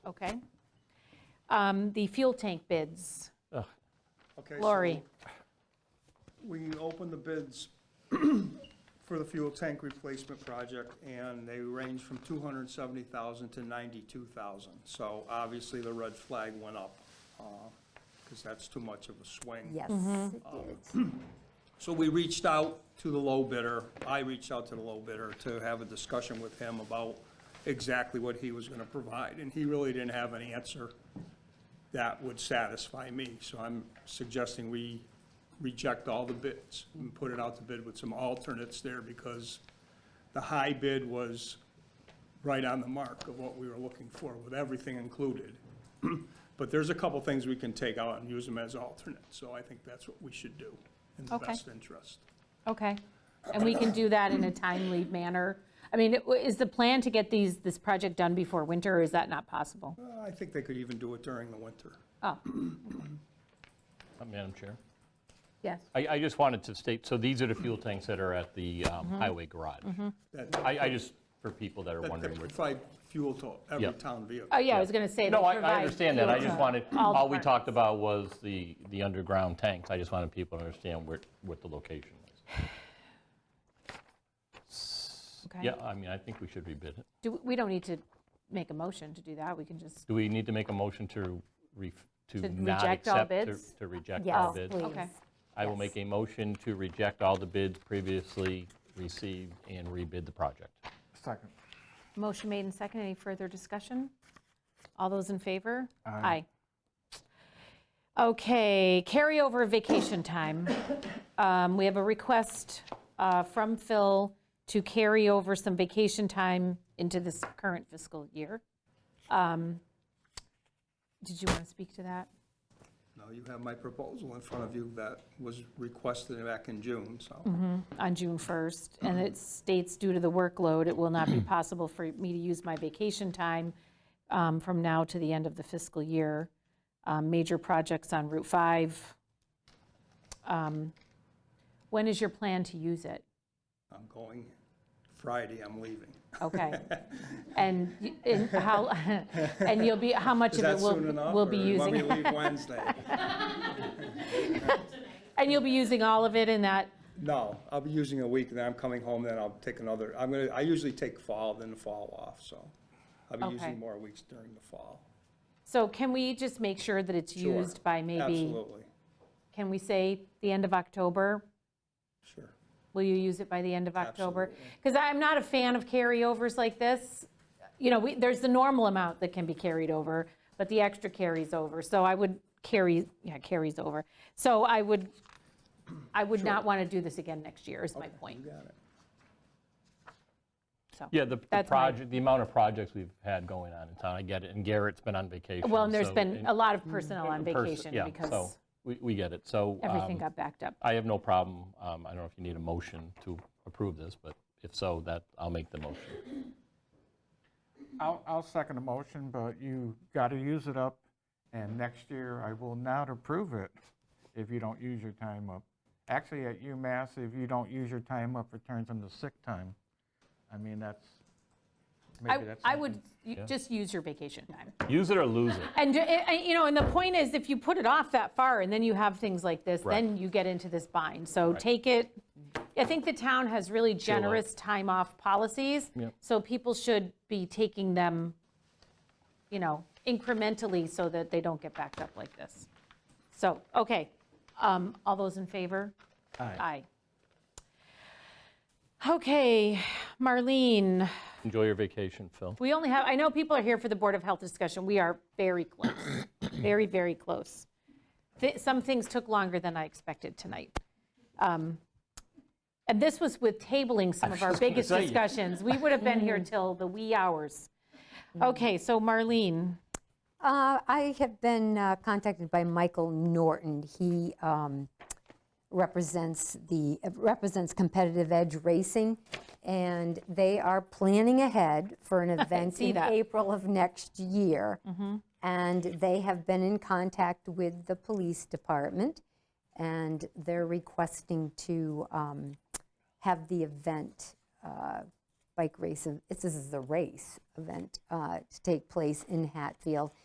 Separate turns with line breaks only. Okay. Um, The fuel tank bids,
Okay, so
Lori,
We opened the bids for the fuel tank replacement project, and they range from 270,000 to 92,000. So obviously, the red flag went up, because that's too much of a swing.
Yes, it did.
So we reached out to the low bidder, I reached out to the low bidder to have a discussion with him about exactly what he was gonna provide, and he really didn't have an answer that would satisfy me, so I'm suggesting we reject all the bids and put it out to bid with some alternates there, because the high bid was right on the mark of what we were looking for, with everything included. But there's a couple things we can take out and use them as alternates, so I think that's what we should do in the
Okay.
best interest.
okay. And we can do that in a timely manner. I mean, it- is the plan to get these, this project done before winter, or is that not possible?
Uh, I think they could even do it during the winter.
Oh,
Uh, Madam Chair,
yes.
I, I just wanted to state, so these are the fuel tanks that are at the um,
Mm-hmm.
highway garage.
That-
I, I just, for people that are
That
wondering.
they
where-
provide fuel to every
Yep.
town vehicle.
Oh, yeah, I was going to say.
No,
they
I, I
provide
understand that, I
fuel
just
to
wanted,
all
all we
departments.
talked about was the, the underground tanks. I just wanted people to understand where, what the location was.
Okay.
Yeah, I mean, I think we should rebid it.
Do, we don't need to make a motion to do that, we can just,
Do we need to make a motion to re, to
To
not
reject all
accept? to-
bids?
To reject all
Yes,
bids?
please.
okay,
I will make a motion to reject all the bids previously received and rebid the project.
Second.
motion made and second, any further discussion? All those in favor? Aye. Okay, carryover vacation time. Um, We have a request uh, from Phil to carry over some vacation time into this current fiscal year. Um, Did you want to speak to that?
Now, you have my proposal in front of you that was requested back in June, so.
Mm-hmm. on June 1st, and
Uh-huh.
it states, due to the workload, it will not be possible for me to use my vacation time um, from now to the end of the fiscal year. Um, Major projects on Route 5. Um, When is your plan to use it?
I'm going, Friday, I'm leaving.
Okay. And y- and how, and you'll be, how much
Is
of it
that
will,
soon enough?
will be
or
using?
Let me leave Wednesday.
And you'll be using all of it in that,
No, I'll be using a week, then I'm coming home, then I'll take another, I'm gonna, I usually take fall, then the fall off, so. I'll be
Okay.
using more weeks during the fall.
so can we just make sure that it's
Sure,
used by maybe,
Absolutely,
can we say the end of October?
sure.
Will you use it by the end of October?
Absolutely.
Because I'm not a fan of carryovers like this. You know, we- there's the normal amount that can be carried over, but the extra carries over. So I would carry, yeah, carries over. So I would, I would not want to do this again next year, is my
You
point.
got it.
So,
Yeah, the- the
That's my-
project, the amount of projects we've had going on in town, I get it, and Garrett's been on vacation.
well, and there's
so-
been
and
a lot of personnel on
pers-
vacation
yeah, so
because
We, we get it, so.
everything
um,
got backed up.
I have no problem, um, I don't know if you need a motion to approve this, but if so, that, I'll make the motion.
I'll, I'll second the motion, but you got to use it up, and next year I will not approve it if you don't use your time up. Actually, at UMass, if you don't use your time up, it turns into sick time. I mean, that's, maybe
I
that's.
I
something-
would y- just use your vacation time.
Use it or lose it.
And, uh, uh, you know, and the point is, if you put it off that far, and then you have things like this, then you get into this bind. So take it, I think the town has really generous time off policies,
Yep.
so people should be taking them, you know, incrementally so that they don't get backed up like this. So, okay, Um, all those in favor? Aye. Okay, Marlene.
Enjoy your vacation, Phil.
We only have, I know people are here for the Board of Health discussion. We are very close, very, very close. Thi- Some things took longer than I expected tonight. Um, And this was with tabling some of our
just gonna
biggest
say. Mm.
discussions. We would have been here till the wee hours. Okay, so Marlene,
Uh, I have been uh, contacted by Michael Norton. He um, represents the, represents Competitive Edge Racing, and they are planning ahead for an event
see
in
that. Mm-hmm.
April of next year. And they have been in contact with the police department, and they're requesting to um, have the event uh, bike race, of- it's- this is a race event uh, to take place in Hatfield.